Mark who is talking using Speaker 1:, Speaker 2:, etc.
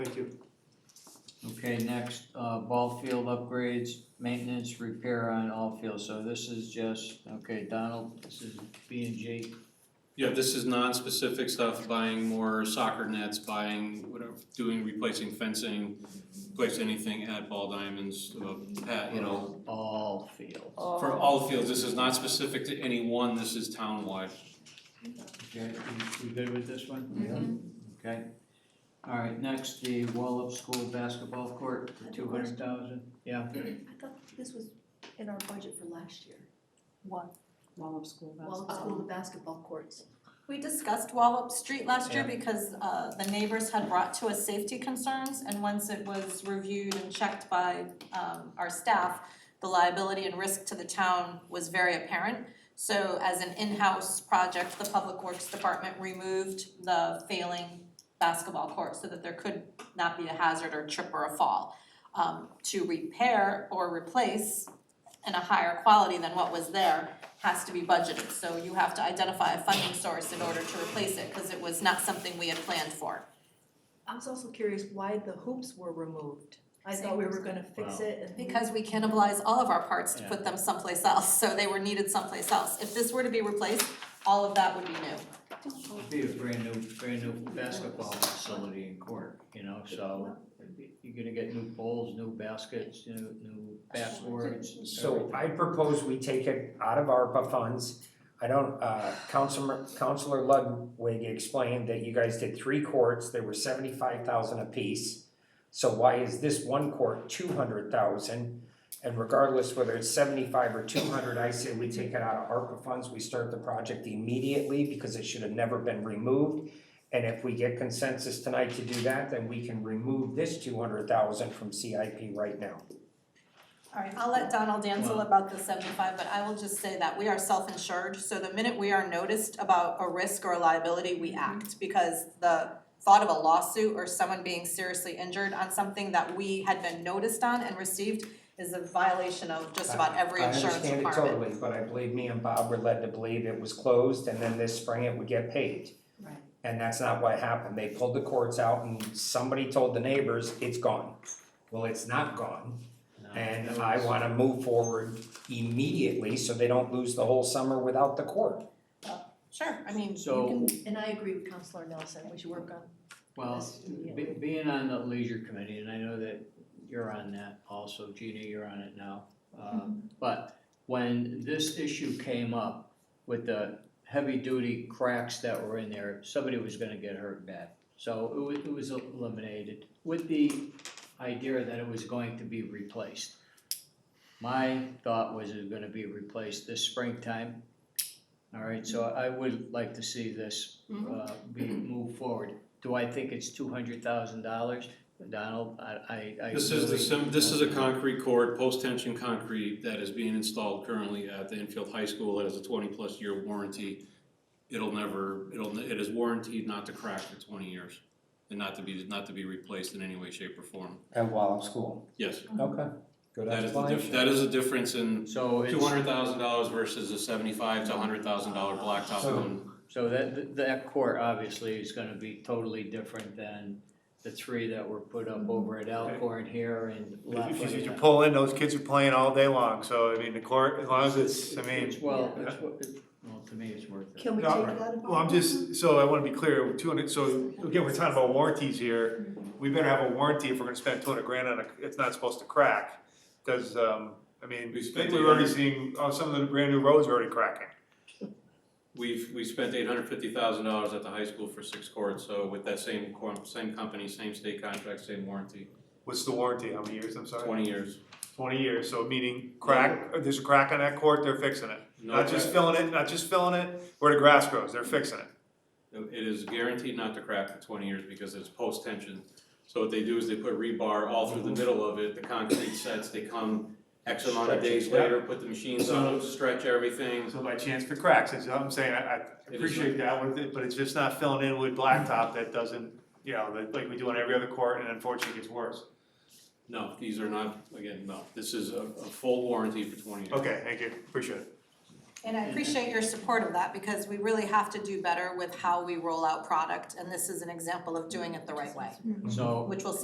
Speaker 1: Thank you.
Speaker 2: Okay, next, uh, ball field upgrades, maintenance, repair on all fields, so this is just, okay, Donald, this is B and J.
Speaker 3: Yeah, this is non-specific stuff, buying more soccer nets, buying whatever, doing, replacing fencing, replace anything at Ball Diamonds, uh, at, you know,
Speaker 2: All fields,
Speaker 3: for
Speaker 4: Oh,
Speaker 3: all fields, this is not specific to any one, this is townwide.
Speaker 2: okay, you, you good with this one? Yeah. Okay, alright, next, the Wallop School basketball court,
Speaker 5: I have a
Speaker 2: two hundred thousand, yeah,
Speaker 5: I thought this was in our budget for last year,
Speaker 4: What? Wallop School Um,
Speaker 5: while it's school, the basketball courts.
Speaker 4: We discussed Wallop Street last year
Speaker 2: Yeah.
Speaker 4: because uh the neighbors had brought to us safety concerns and once it was reviewed and checked by um our staff, the liability and risk to the town was very apparent. So as an in-house project, the Public Works Department removed the failing basketball court so that there could not be a hazard or trip or a fall. Um to repair or replace in a higher quality than what was there, has to be budgeted, so you have to identify a funding source in order to replace it, cause it was not something we had planned for.
Speaker 5: I was also curious why the hoops were removed. I thought we were gonna fix
Speaker 2: Wow.
Speaker 5: it and.
Speaker 4: Because we cannibalize all of our parts to put them someplace else, so they were needed someplace else. If this were to be replaced, all of that would be new.
Speaker 2: be a brand new, brand new basketball facility and court, you know, so you're gonna get new poles, new baskets, new, new backboards,
Speaker 6: So I propose we take it out of ARPA funds. I don't, uh, Councilor, Councilor Ludwig explained that you guys did three courts, they were seventy-five thousand apiece. So why is this one court two hundred thousand? And regardless whether it's seventy-five or two hundred, I say we take it out of ARPA funds, we start the project immediately because it should have never been removed. And if we get consensus tonight to do that, then we can remove this two hundred thousand from CIP right now.
Speaker 4: Alright, I'll let Donald
Speaker 2: Wow.
Speaker 4: Dansel about the seventy-five, but I will just say that we are self-insured, so the minute we are noticed about a risk or a liability,
Speaker 6: Mm-hmm.
Speaker 4: we act. Because the thought of a lawsuit or someone being seriously injured on something that we had been noticed on and received is a violation of just about every insurance requirement.
Speaker 6: I understand it totally, but I believe me and Bob were led to believe it was closed and then this spring it would get paid.
Speaker 5: Right.
Speaker 6: And that's not what happened. They pulled the courts out and somebody told the neighbors, it's gone. Well, it's not gone. And I wanna move forward immediately so they don't lose the whole summer without the court.
Speaker 4: Sure, I mean,
Speaker 2: So-
Speaker 4: you can,
Speaker 5: And I agree with Counselor Nelson, we should work on
Speaker 2: Well,
Speaker 5: Yes, yeah.
Speaker 2: be- being on the leisure committee, and I know that you're on that also, Gina, you're on it now. uh, But when this issue came up with the heavy-duty cracks that were in there, somebody was gonna get hurt bad. So it was, it was eliminated with the idea that it was going to be replaced. My thought was it was gonna be replaced this springtime. All right, so I would like to see this uh, be moved forward. Do I think it's two hundred thousand dollars? Donald, I, I, I
Speaker 3: This is the,
Speaker 2: really-
Speaker 3: sim- this is a concrete court, post-tension concrete that is being installed currently at the Enfield High School, it has a twenty-plus year warranty. It'll never, it'll, it is warranted not to crack for twenty years, and not to be, not to be replaced in any way, shape, or form,
Speaker 6: At Wallop School.
Speaker 3: yes.
Speaker 6: Okay, good
Speaker 3: That is the diff, that is a difference in
Speaker 2: So
Speaker 3: two
Speaker 2: it's,
Speaker 3: hundred thousand dollars versus a seventy-five to hundred thousand dollar blacktop
Speaker 6: So-
Speaker 3: one.
Speaker 2: so that, that court obviously is gonna be totally different than the three that were put up over at Alcorn here and
Speaker 1: If you, if you
Speaker 2: Lafayette.
Speaker 1: pull in, those kids are playing all day long, so I mean, the court, as long as it's, I mean.
Speaker 2: It's well, it's, wo- it's- well, to me, it's worth it.
Speaker 5: Can we
Speaker 1: No,
Speaker 5: take it out of?
Speaker 1: Well, I'm just, so I wanna be clear, two hundred, so again, we're talking about warranties here, we better have a warranty if we're gonna spend two hundred grand on a, it's not supposed to crack. Cause, um, I mean,
Speaker 3: We spent
Speaker 1: we're already seeing, oh, some of the brand new roads are already cracking.
Speaker 3: We've, we spent eight hundred fifty thousand dollars at the high school for six courts, so with that same cor- same company, same state contract, same warranty,
Speaker 1: What's the warranty, how many years, I'm sorry?
Speaker 3: twenty years.
Speaker 1: Twenty years, so meaning crack, there's a crack on that court, they're fixing it.
Speaker 3: No
Speaker 1: Not just filling it, not just filling it, where the grass grows, they're fixing it.
Speaker 3: crack. It is guaranteed not to crack for twenty years because it's post tension. So what they do is they put rebar all through the middle of it, the concrete sets, they come X amount of
Speaker 6: Stretch it,
Speaker 3: days
Speaker 1: yeah.
Speaker 3: later, put the machines on, it, stretch everything.
Speaker 1: So by chance for cracks, that's what I'm saying, I, I
Speaker 3: It is-
Speaker 1: appreciate that with it, but it's just not filling in with blacktop that doesn't, you know, that like we do on every other court and unfortunately it gets worse.
Speaker 3: No, these are not, again, no, this is a, a full warranty for twenty years.
Speaker 1: Okay, thank you, appreciate it.
Speaker 4: And I appreciate your support of that because we really have to do better with how we roll out product and this is an example of doing it the right way,
Speaker 2: So
Speaker 6: Mm-hmm.
Speaker 4: which will save